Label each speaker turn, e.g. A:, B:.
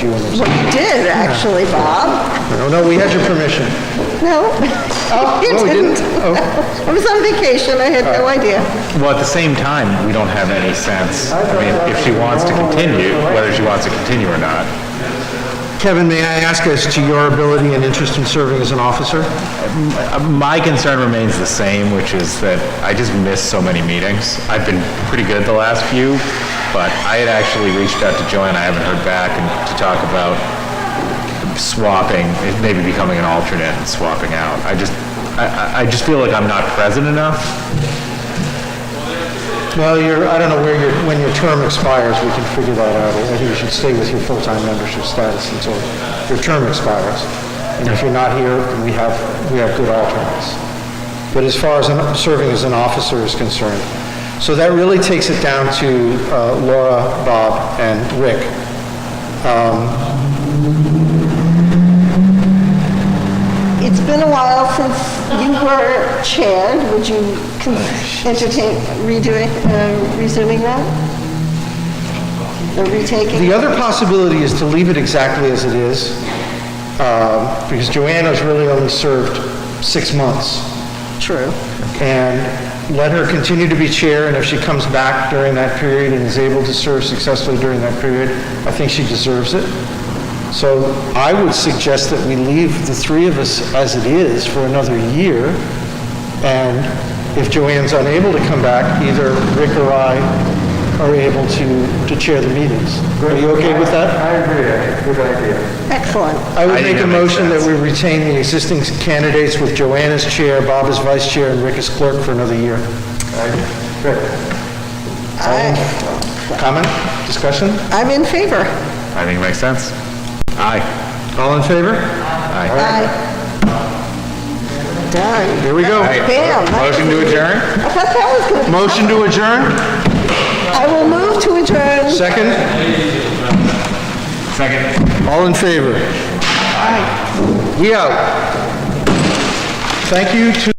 A: you in or
B: Well,
A: something.
B: you did, actually, Bob.
A: No, Oh, no, we had your permission.
B: No, you
A: Oh, no, we didn't.
B: didn't.
A: Oh.
B: I was on vacation, I had no idea.
C: Well, at the same time, we don't have any sense, I mean, if she wants to continue, whether she wants to continue or not.
A: Kevin, may I ask as to your ability and interest in serving as an officer?
C: Uh, My concern remains the same, which is that I just miss so many meetings. I've been pretty good the last few, but I had actually reached out to Joanne, I haven't heard back, and to talk about swapping, maybe becoming an alternate and swapping out. I just, I- I, I just feel like I'm not present enough.
A: Well, you're, I don't know where your, when your term expires, we can figure that out. I think you should stay with your full-time membership status until your term expires. And if you're not here, then we have, we have good alternates. But as far as an- serving as an officer is concerned, so that really takes it down to uh, Laura, Bob, and Rick.
B: It's been a while since you were chair. Would you con-
A: Oh,
B: entertain redoing, uh, resuming that? Or retaking?
A: The other possibility is to leave it exactly as it is, um, because Joanna's really only served six months.
B: True.
A: and let her continue to be chair, and if she comes back during that period and is able to serve successfully during that period, I think she deserves it. So I would suggest that we leave the three of us as it is for another year, and if Joanne's unable to come back, either Rick or I are able to, to chair the meetings. Are you okay with that?
D: I agree, that's a good idea.
B: Excellent.
A: I
C: I
A: would
C: think
A: make a
C: that makes
A: motion that
C: sense.
A: we retain the existing candidates with Joanne as chair, Bob as vice chair, and Rick as clerk for another year.
D: I- Good.
A: Oh. Comment? Discussion?
B: I'm in favor.
C: I think it makes sense. Aye.
A: All in favor?
C: Aye.
B: Aye. Done.
A: Here we go.
C: Aye.
B: Bam, that
C: Motion to adjourn?
B: I thought that was going to,
A: Motion to adjourn?
B: I will move to adjourn.
A: Second?
C: Second.
A: All in favor? We out. Thank you to...